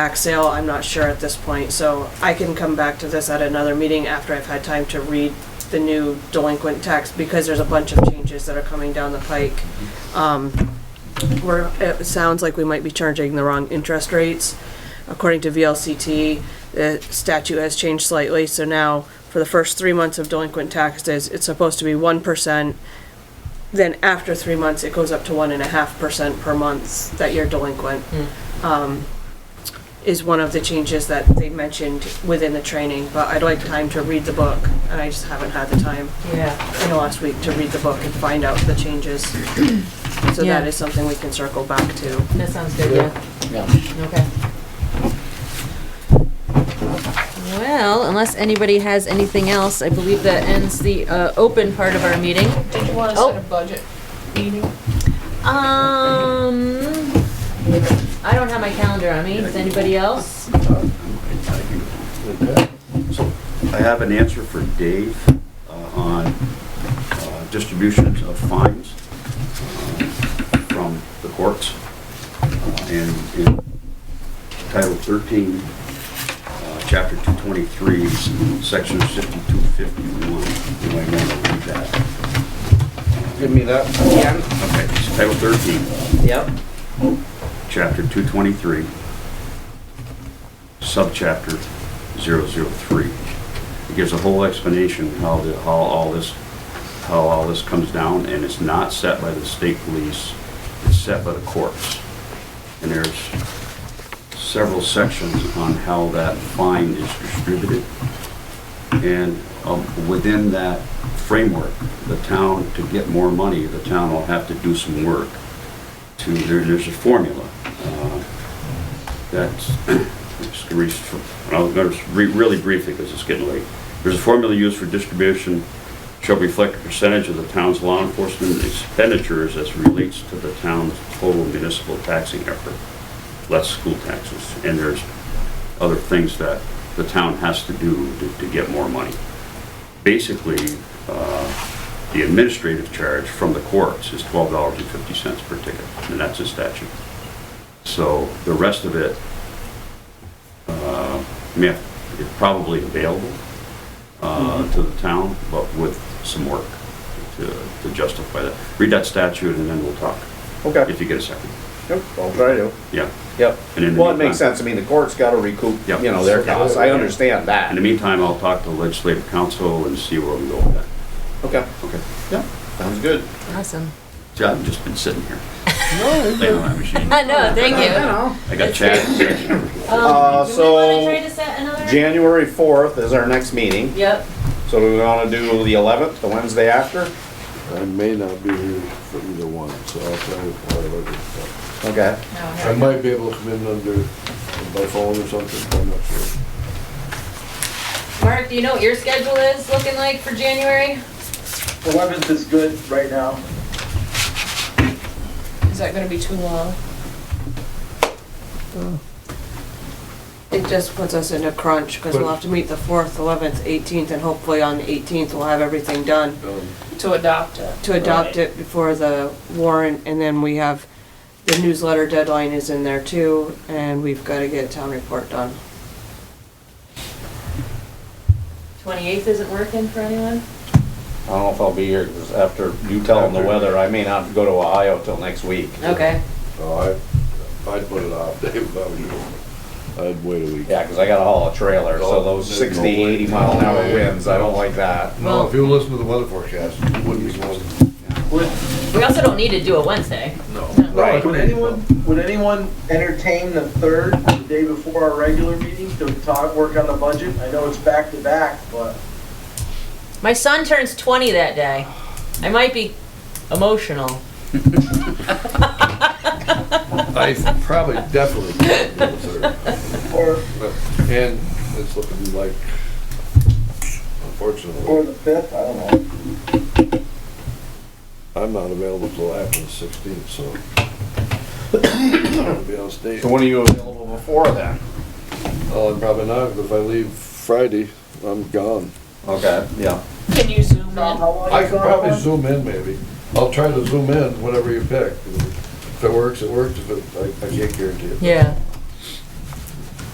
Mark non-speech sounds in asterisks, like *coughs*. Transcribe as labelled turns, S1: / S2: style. S1: back sale, I'm not sure at this point, so I can come back to this at another meeting after I've had time to read the new delinquent tax, because there's a bunch of changes that are coming down the pike. Um, Where it sounds like we might be charging the wrong interest rates. According to VLCT, the statute has changed slightly, so now for the first three months of delinquent taxes, it's supposed to be one percent. Then after three months, it goes up to one and a half percent per month that you're delinquent. Um, is one of the changes that they mentioned within the training, but I'd like time to read the book, and I just haven't had the time
S2: Yeah,
S1: in the last week to read the book and find out the *clears throat* changes. So
S2: Yeah.
S1: that is something we can circle back to.
S2: that sounds good, yeah,
S3: Yeah.
S2: okay. Well, unless anybody has anything else, I believe that ends the uh, open part of our meeting.
S4: Did you want to
S2: Oh.
S4: set a budget meeting?
S2: Um, I don't have my calendar on me, does anybody else?
S5: So I have an answer for Dave uh, on uh, distributions of fines uh, from the courts. Uh, And in Title 13, uh, Chapter 223, Section 5251, you might want to read that.
S3: Give me that again.
S5: Okay, it's Title 13.
S3: Yep.
S5: Chapter 223, Subchapter 003. It gives a whole explanation how the, how all this, how all this comes down, and it's not set by the state police, it's set by the courts. And there's several sections on how that fine is distributed. And um, within that framework, the town, to get more money, the town will have to do some work to, there, there's a formula, uh, that's, it's the reason for- and I'll go re- really briefly, because it's getting late. There's a formula used for distribution, shall reflect a percentage of the town's law enforcement expenditures as relates to the town's total municipal taxing effort, less school taxes, and there's other things that the town has to do to, to get more money. Basically, uh, the administrative charge from the courts is twelve dollars and fifty cents per ticket, and that's a statute. So the rest of it, uh, may have- it's probably available, uh, to the town, but with some work to, to justify that. Read that statute and then we'll talk,
S3: Okay.
S5: if you get a second.
S3: Yep, I'll try to.
S5: Yeah.
S3: Yep.
S5: And in the
S3: Well, it makes
S5: meantime-
S3: sense. I mean, the court's gotta recoup, you
S5: Yep.
S3: know, their costs. I understand
S5: In
S3: that.
S5: the meantime, I'll talk to legislative council and see where we go with that.
S3: Okay.
S5: Okay.
S3: Yeah, sounds good.
S2: Awesome.
S5: See, I've just been sitting here. Playing on my machine.
S2: I know, Uh, thank you.
S5: I got Chad.
S3: Uh,
S2: Um, do we wanna
S3: so-
S2: try to set another?
S3: January fourth is our next meeting,
S2: Yep,
S3: so do we wanna do the eleventh, the Wednesday after?
S6: I may not be here for either one, so I'll try to call it later. but
S3: Okay.
S6: I might be able to come in under, by phone or something, I'm not sure.
S2: Mark, do you know what your schedule is looking like for January?
S7: Eleventh is good right now.
S4: Is that going to be too long?
S1: It just puts us in a crunch, because we'll have to meet the fourth, eleventh, eighteenth, and hopefully on the eighteenth, we'll have everything done
S4: To adopt it?
S1: to adopt it before the warrant, and then we have, the newsletter deadline is in there too, and we've gotta get a town report done.
S2: Twenty-eighth isn't working for anyone?
S3: I don't know if I'll be here, 'cause after you tell them the weather, I may not go to Ohio till next week.
S2: Okay.
S6: So I, I'd put it off, *laughs* Dave, if I was you. I'd wait a week.
S3: Yeah, 'cause I gotta haul a trailer, so
S6: Oh,
S3: those
S6: there's no
S3: 60,
S6: way.
S3: 80 mile an hour winds, I don't like that.
S6: No, if you listen to the weather forecast, you wouldn't be supposed to.
S2: We also don't need to do it Wednesday.
S6: No.
S3: Right.
S7: Would anyone, would anyone entertain the third, the day before our regular meeting to talk, work on the budget? I know it's back to back, but
S2: My son turns 20 that day. I might be emotional.
S6: I probably definitely can't do the third.
S7: or,
S6: But- And it's looking like,
S7: or
S6: unfortunately,
S7: the fifth, I don't know.
S6: I'm not available till after the sixteenth, so. *coughs* I'll be on stage.
S3: So when are you available before then?
S6: Oh, I'm probably not, but if I leave Friday, I'm gone.
S3: Okay, yeah.
S4: Can you zoom in?
S7: Tom, how long
S6: I
S7: you
S6: can
S7: gone
S6: probably
S7: on?
S6: zoom in maybe. I'll try to zoom in, whatever you pick. If it works, it works. If it, I, I can't guarantee it.
S2: Yeah.